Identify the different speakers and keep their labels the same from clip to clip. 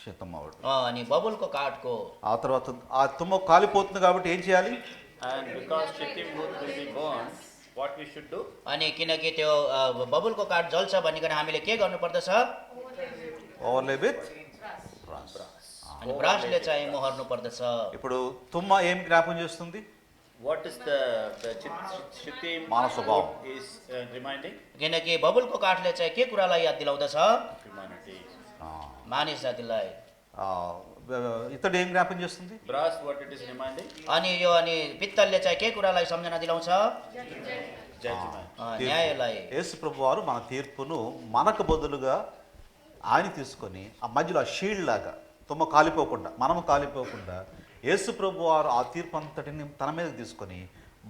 Speaker 1: శతం అవడం
Speaker 2: अ, अनि बबुलको काठको
Speaker 1: ఆ తర్వాత ఆ తుమ్మ కాలిపోతుంది కాబట్టి ఏం చేయాలి
Speaker 3: And because Shittim wood will be burned, what we should do?
Speaker 2: अनि किनकि त्यो अ, बबुलको काठ जल्छ भनिकन हामीले के गर्नुपर्दछ
Speaker 1: ఓవర్లే విత్
Speaker 2: अनि ब्रासले चाहिँ मोहर्नु पर्दछ
Speaker 1: ఇప్పుడు తుమ్మ ఏం జ్ఞాపకం చేస్తుంది
Speaker 3: What is the, the Shit- Shittim
Speaker 1: మానవ స్వభావం.
Speaker 3: wood is uh, reminding?
Speaker 2: किनकि बबुलको काठले चाहिँ के कुरालाई याद दिलाउँदछ
Speaker 3: Humanity.
Speaker 1: ఆ,
Speaker 2: मानिस जातिलाई
Speaker 1: ఆ, ఇతడు ఏం జ్ఞాపకం చేస్తుంది
Speaker 3: Brass, what it is reminding?
Speaker 2: अनि यो अनि पित्तलले चाहिँ के कुरालाई सम्झना दिलाउँछ अ,
Speaker 3: Judgment.
Speaker 1: తీర్పు.
Speaker 2: न्यायलाई
Speaker 1: యేసు ప్రభు వారు మన తీర్పును మనకు బదులుగా ఆయన తీసుకొని ఆ మధ్యలో ఆ షీల్డ్ లాగా తుమ్మ కాలిపోకుండా మనము కాలిపోకుండా యేసు ప్రభు వారు ఆ తీర్పు అంతటిని తన మీదకి తీసుకొని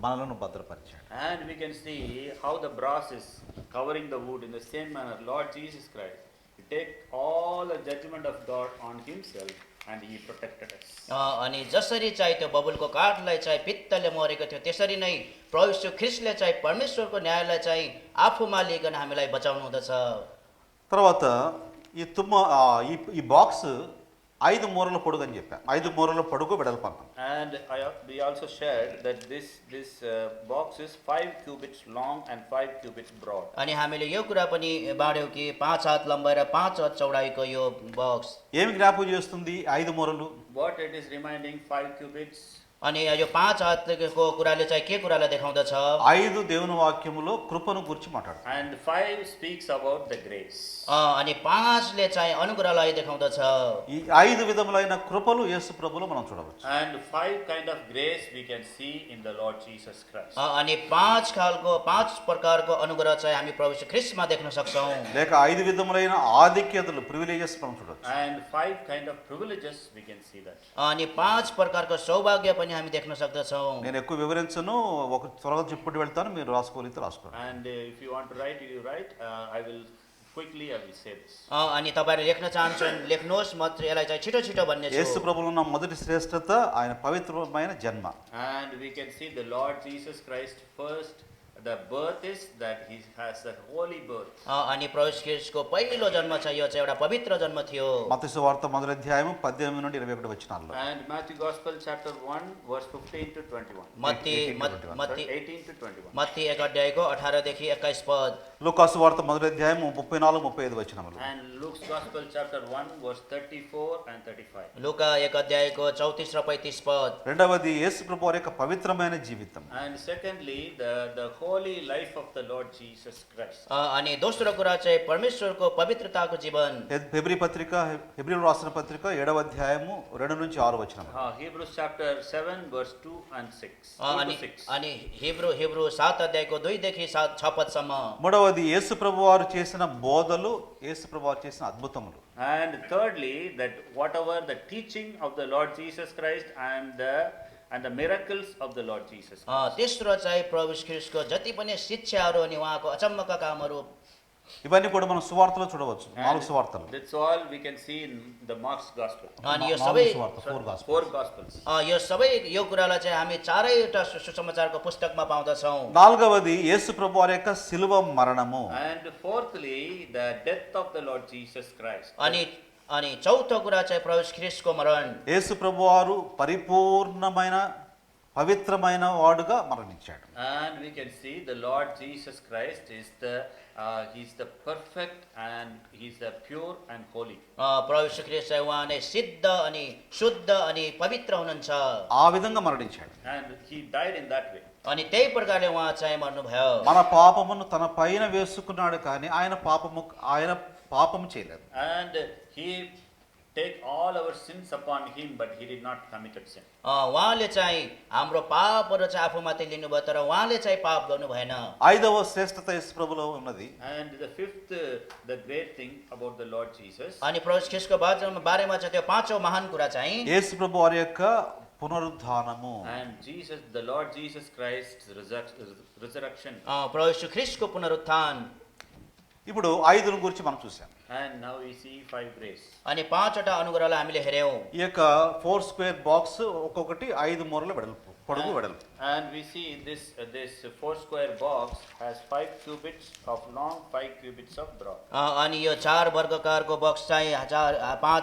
Speaker 1: మనలను భద్రపరిచాడు
Speaker 3: And we can see how the brass is covering the wood in the same manner. Lord Jesus Christ, He take all the judgment of God on Himself and He protected us.
Speaker 2: अ, अनि जसरी चाहिँ त्यो बबुलको काठलाई चाहिँ पित्तले मरेको थियो त्यसरी नै प्रभु यीशु ख्रिस्टले चाहिँ परमेश्वरको न्यायलाई चाहिँ आफूमा लिइकन हामीलाई बचाउनु हुँदछ
Speaker 1: తర్వాత ఈ తుమ్మ ఆ, ఈ ఈ బాక్స్ ఐదు మూరల పొడుగు అని చెప్పాను ఐదు మూరల పొడుగు వెడల్పంతం
Speaker 3: And I, al- we also shared that this, this uh, box is five cubits long and five cubits broad.
Speaker 2: अनि हामीले यो कुरा पनि बाँड्यौँ कि पाँच हात लम्बाइ र पाँच हात चौडाइको यो बक्स
Speaker 1: ఏమి జ్ఞాపకం చేస్తుంది ఐదు మూరలు
Speaker 3: What it is reminding, five cubits,
Speaker 2: अनि यो पाँच हातको कुराले चाहिँ के कुरालाई देखाउँदछ
Speaker 1: ఐదు దేవుని వాక్యములో కృపను గురించి మాట్లాడు
Speaker 3: and five speaks about the grace.
Speaker 2: अ, अनि पाँचले चाहिँ अनुग्रहलाई देखाउँदछ
Speaker 1: ఈ ఐదు విధములైన కృపలు యేసు ప్రభులో మనం చూడవచ్చు
Speaker 3: And five kind of grace we can see in the Lord Jesus Christ.
Speaker 2: अ, अनि पाँच खालको पाँच प्रकारको अनुग्रह चाहिँ हामी प्रभु यीशु ख्रिस्टमा देख्न सक्छौँ
Speaker 1: లేక ఐదు విధములైన ఆధిక్యతలు ప్రివిలేజెస్ మనం చూడవచ్చు
Speaker 3: And five kind of privileges we can see that.
Speaker 2: अनि पाँच प्रकारको सौभाग्य पनि हामी देख्न सक्दछौँ
Speaker 1: నేను ఎక్కువ వివరించను ఒక త్వరగా చెప్పుకుంటూ వెళ్తాను మీరు రాసుకోగలిగితే రాసుకోండి
Speaker 3: And uh, if you want to write, you write. Uh, I will quickly, I will say this.
Speaker 2: अ, अनि तपाईँहरू लेख्न चाहन्छन् लेख्नुहोस् म चाहिँ यसलाई चाहिँ छिटो छिटो भन्ने
Speaker 1: యేసు
Speaker 2: छु
Speaker 1: ప్రభులో ఉన్న మొదటి శ్రేష్టత ఆయన పవిత్రమైన జన్మ
Speaker 3: And we can see the Lord Jesus Christ first. The birth is that he has the holy birth.
Speaker 2: अ, अनि प्रभु क्रिस्टको पहिलो जन्म छ यो चाहिँ एउटा पवित्र जन्म थियो
Speaker 1: మతసు వార్త మొదటి అధ్యాయం పద్దెనిమిది నుండి ఇరవై ఒకటి వచ్చినాల్లో
Speaker 3: And Matthew Gospel chapter 1, verse 15 to 21.
Speaker 2: मत्ती मत- मत्ती
Speaker 3: Sorry, 18 to 21.
Speaker 2: मत्ती एक अध्यायको अठारदेखि एक्काइस पद
Speaker 1: లూకాసు వార్త మొదటి అధ్యాయం ముప్పై నాలుగు ముప్పై ఐదు వచ్చినాలు
Speaker 3: And Luke's Gospel chapter 1, verse 34 and 35.
Speaker 2: लुका एक अध्यायको चौतिस र पैँतिस पद
Speaker 1: రెండవది యేసు ప్రభు వారి యొక్క పవిత్రమైన జీవితం
Speaker 3: And secondly, the, the holy life of the Lord Jesus Christ.
Speaker 2: अ, अनि दोस्रो कुरा चाहिँ परमेश्वरको पवित्रताको जीवन
Speaker 1: హె- హెబ్రీ పత్రిక హె- హెబ్రీలు రాసిన పత్రిక ఏడవ అధ్యాయము రెండు నుంచి ఆరు వచ్చినాము
Speaker 3: Uh, Hebrews chapter 7, verse 2 and 6.
Speaker 2: A,
Speaker 3: 2 to
Speaker 2: अनि
Speaker 3: 6.
Speaker 2: अनि हिब्रू हिब्रू सात अध्यायको दुईदेखि सात छ पदसम्म
Speaker 1: మూడవది యేసు ప్రభు వారు చేసిన బోధలు యేసు ప్రభు వారు చేసిన అద్భుతములు
Speaker 3: And thirdly, that whatever the teaching of the Lord Jesus Christ and the and the miracles of the Lord Jesus
Speaker 2: अ, तेस्रो चाहिँ प्रभु यीशु ख्रिस्टको जति पनि शिक्षाहरू अनि उहाँको अचम्मका कामहरू
Speaker 1: ఇవన్నీ కూడా మనం సువార్తలో చూడవచ్చు నాలుగు సువార్తలు
Speaker 3: Christ. That's all we can see in the Mark's Gospel.
Speaker 2: अनि
Speaker 1: నా-
Speaker 2: यो
Speaker 1: నాలుగు
Speaker 2: सबै
Speaker 1: సువార్త ఫోర్ గాస్పెల్
Speaker 3: Four Gospels.
Speaker 2: अ, यो सबै यो कुरालाई चाहिँ हामी चारैवटा सु- सुसमाचारको పుస్తकमा पाउँदछौँ
Speaker 1: నాలుగవది యేసు ప్రభు వారి యొక్క శిలువ మరణము
Speaker 3: And fourthly, the death of the Lord Jesus Christ.
Speaker 2: अनि अनि चौथो कुरा चाहिँ प्रभु यीशु ख्रिस्टको मरण
Speaker 1: యేసు ప్రభు వారు పరిపూర్ణమైన పవిత్రమైన వాడుగా మరణించాడు
Speaker 3: And we can see the Lord Jesus Christ is the, uh, he's the perfect and he's the pure and holy.
Speaker 2: अ, प्रभु यीशु ख्रिस्ट चाहिँ उहाँ नै सिद्ध अनि शुद्ध अनि पवित्र हुनुहुन्छ
Speaker 1: ఆ విధంగా మరణించాడు
Speaker 3: And he died in that way.
Speaker 2: अनि त्यही प्रकारले उहाँ चाहिँ मर्नुभयो
Speaker 1: మన పాపమును తన పైన వేసుకున్నాడు కానీ ఆయన పాపము ఆయన పాపము చేయలేదు
Speaker 3: And he take all our sins upon him, but he did not committed sin.
Speaker 2: अ, उहाँले चाहिँ हाम्रो पापहरू चाहिँ आफूमाथि लिनुभयो तर उहाँले चाहिँ पाप गर्नु भएन
Speaker 1: ఐదవ శ్రేష్టత యేసు ప్రభులో ఉన్నది
Speaker 3: And the fifth, uh, the great thing about the Lord Jesus,
Speaker 2: अनि प्रभु यीशु ख्रिस्टको बारेमा बारेमा चाहिँ त्यो पाँचौँ महान कुरा चाहिँ
Speaker 1: యేసు ప్రభు వారి యొక్క పునరుద్ధానము
Speaker 3: and Jesus, the Lord Jesus Christ's resur- resurrection.
Speaker 2: अ, प्रभु यीशु ख्रिस्टको पुनरुत्थान
Speaker 1: ఇప్పుడు ఐదును గురించి మనం చూసాం
Speaker 3: And now we see five grace.
Speaker 2: अनि पाँचवटा अनुग्रहलाई हामीले हेऱ्यौँ
Speaker 1: ఈ యొక్క ఫోర్ స్క్వేర్ బాక్స్ ఒక్కొక్కటి ఐదు మూరల వెడల్పు పొడుగు వెడల్పు
Speaker 3: And we see this, uh, this four square box has five cubits of long, five cubits of broad.
Speaker 2: अ, अनि यो चार वर्गकारको बक्स चाहिँ चार पाँच